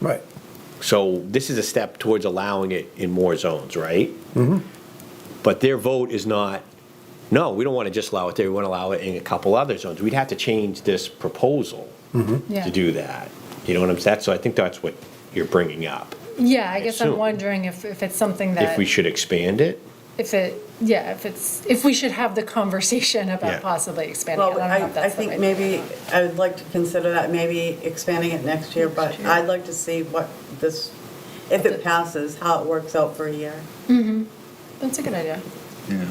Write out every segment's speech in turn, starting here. Right. So this is a step towards allowing it in more zones, right? Mm-hmm. But their vote is not, no, we don't want to just allow it there, we want to allow it in a couple other zones. We'd have to change this proposal Yeah. to do that. You know what I'm saying? So I think that's what you're bringing up. Yeah, I guess I'm assume. wondering if, if it's something If that, we should expand it? if it, yeah, if it's, if we should have the conversation Yeah. about possibly expanding it. Well, don't know I, if I that's the think right- maybe, I would like to consider that, maybe expanding it next year, but I'd like to see what this, if it passes, how it works out for a year. That's a good idea. I'd be on That, board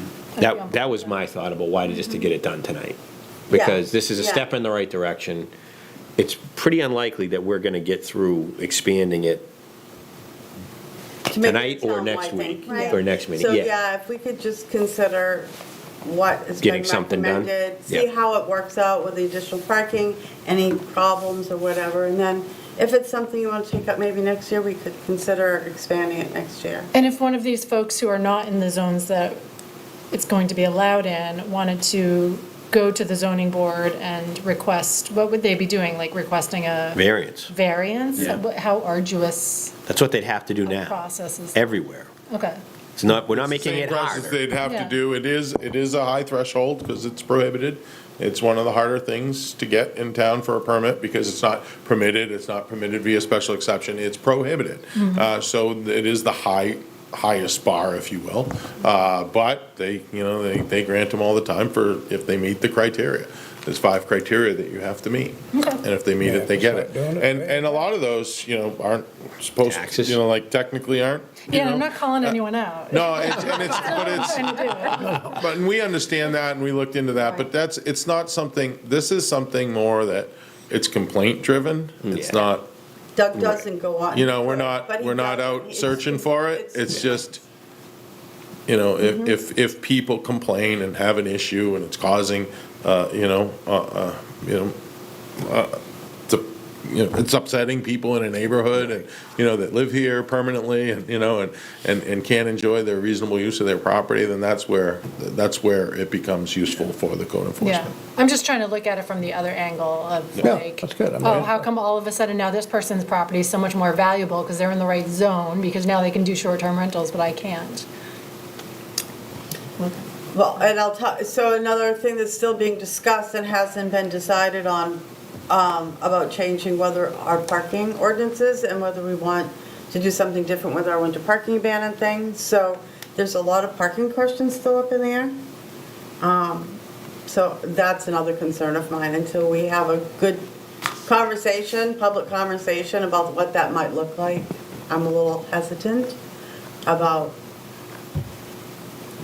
Mm-hmm. that with was my thought about why, just to get it done tonight. Because this is a Yeah. step in the right direction. It's pretty unlikely that we're going to get through expanding it To make it Tonight or town-wide next thing, week, right? or next meeting, So, yeah. yeah, if we could just consider what has been Getting something done? recommended, see Yeah. how it works out with the additional parking, any problems or whatever, and then if it's something you want to take up maybe next year, we could consider expanding it next year. And if one of these folks who are not in the zones that it's going to be allowed in wanted to go to the zoning board and request, what would they be doing? Like requesting a variance. variance? What- How arduous That's what they'd have to do a now, process is? everywhere. Okay. It's not, we're not It's the making same it process harder. They'd have to Yeah. do, it is, it is a high threshold because it's prohibited. It's one of the harder things to get in town for a permit because it's not permitted, it's not permitted via special exception, it's prohibited. Mm-hmm. Uh, So it is the high, highest bar, if you will. Uh, But they, you know, they, they grant them all the time for, if they meet the criteria. There's five criteria that you have to meet. And if they meet Yeah, it, they get it. just not doing it, And, right. and a lot of those, you know, aren't supposed, to Taxes. you know, like technically aren't. you Yeah, I'm know? not uh, calling anyone out. No, it's- and it's, but it's, Trying to do it. but and we understand that and we looked into that, but that's, it's not something, this is something more that it's complaint driven. It's Yeah. not, Doug doesn't go on. you know, we're but not, he we're not does- out it's- Mm-hmm. searching for it. It's just, you know, if, if, if people complain and have an issue and it's causing, uh, you know, uh, uh, you know, uh, it's, a- you know, it's upsetting people in a neighborhood and, you know, that live here permanently and, you know, and, and, and can't enjoy their reasonable use of their property, then that's where, that's where it becomes useful for the code Yeah, enforcement. I'm just trying to look at it from the other angle of Yeah, like, that's good. I mean- oh, how come all of a sudden now this person's property is so much more valuable because they're in the right zone, because now they can do short-term rentals, but I can't? Well, and I'll talk, so another thing that's still being discussed and hasn't been decided on, um, about changing whether our parking ordinances and whether we want to do something different with our winter parking ban and things. So there's a lot of parking questions still up in the air. Um, so that's another concern of mine until we have a good conversation, public conversation about what that might look like. I'm a little hesitant about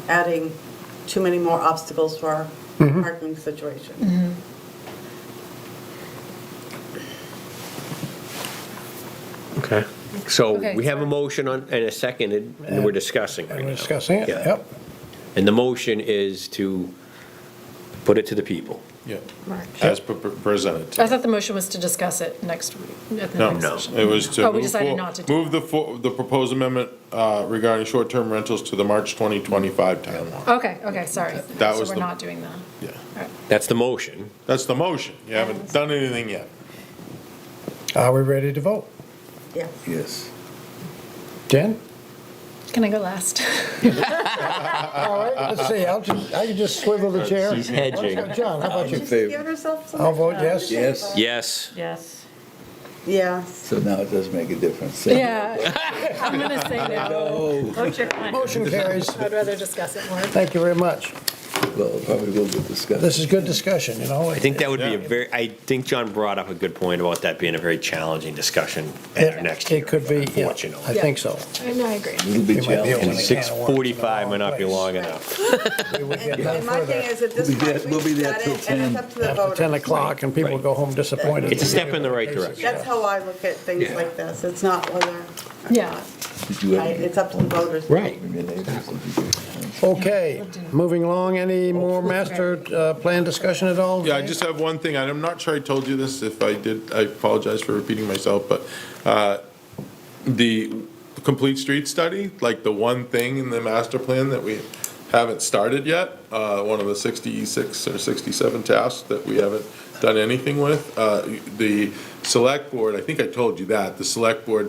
adding too many more obstacles for our Mm-hmm. parking situation. Okay. So Okay, we have a sorry. motion on, and a second, and and we're discussing right And now. we're discussing it, Yeah. yep. And the motion is to put it to the people. Yeah, Mark. as pre- pre- presented. I thought the motion was to discuss it next week. at the No, next no. session. It was to. Oh, we move decided for- not to do Move the, fo- the proposed amendment uh, regarding short-term rentals to the March 2025 timeline. Okay, okay, sorry. That was So we're the- not doing that. Yeah, All right. That's the motion. that's the motion. You haven't done anything yet. Are we ready to vote? Yeah. Yes. Jen? Can I go last? All right, let's see, I'll just, I can just swivel the chair. Hedging. John, how about you? In favor. Give herself some. I'll vote yes. Yes, Yes. Yes. Yes. so now it does make a difference. Yeah, I'm gonna say no. Vote your plan. Motion carries. I'd rather discuss it more. Thank you very much. Well, probably will be discussed. This is good discussion, you know? I think that would be a very, I think John brought up a good point about that being a very challenging discussion at our next year. It could be, yeah, I Unfortunately. think so. I know, I agree. It'll be It might be a And Opening can challenging. of worms in the 6:45 might not be wrong long place. enough. We would get And none and my thing further is that this We'll be there- point, we'll be we've there got till it, and it's 10. up to the after 10 voters. o'clock, and people go home disappointed. It's a step in the right direction. That's how I look at things Yeah. like this. It's not whether, Yeah. Did you I- ever hear it's up to the voters. from your neighbors? Did you hear? Okay, moving along, any more master uh, plan discussion at all? Yeah, I just have one thing, and I'm not sure I told you this, if I did, I apologize for repeating myself, but uh, the complete street study, like the one thing in the master plan that we haven't started yet, uh, one of the 66 or 67 tasks that we haven't done anything with. Uh, The select board, I think I told you that, the select board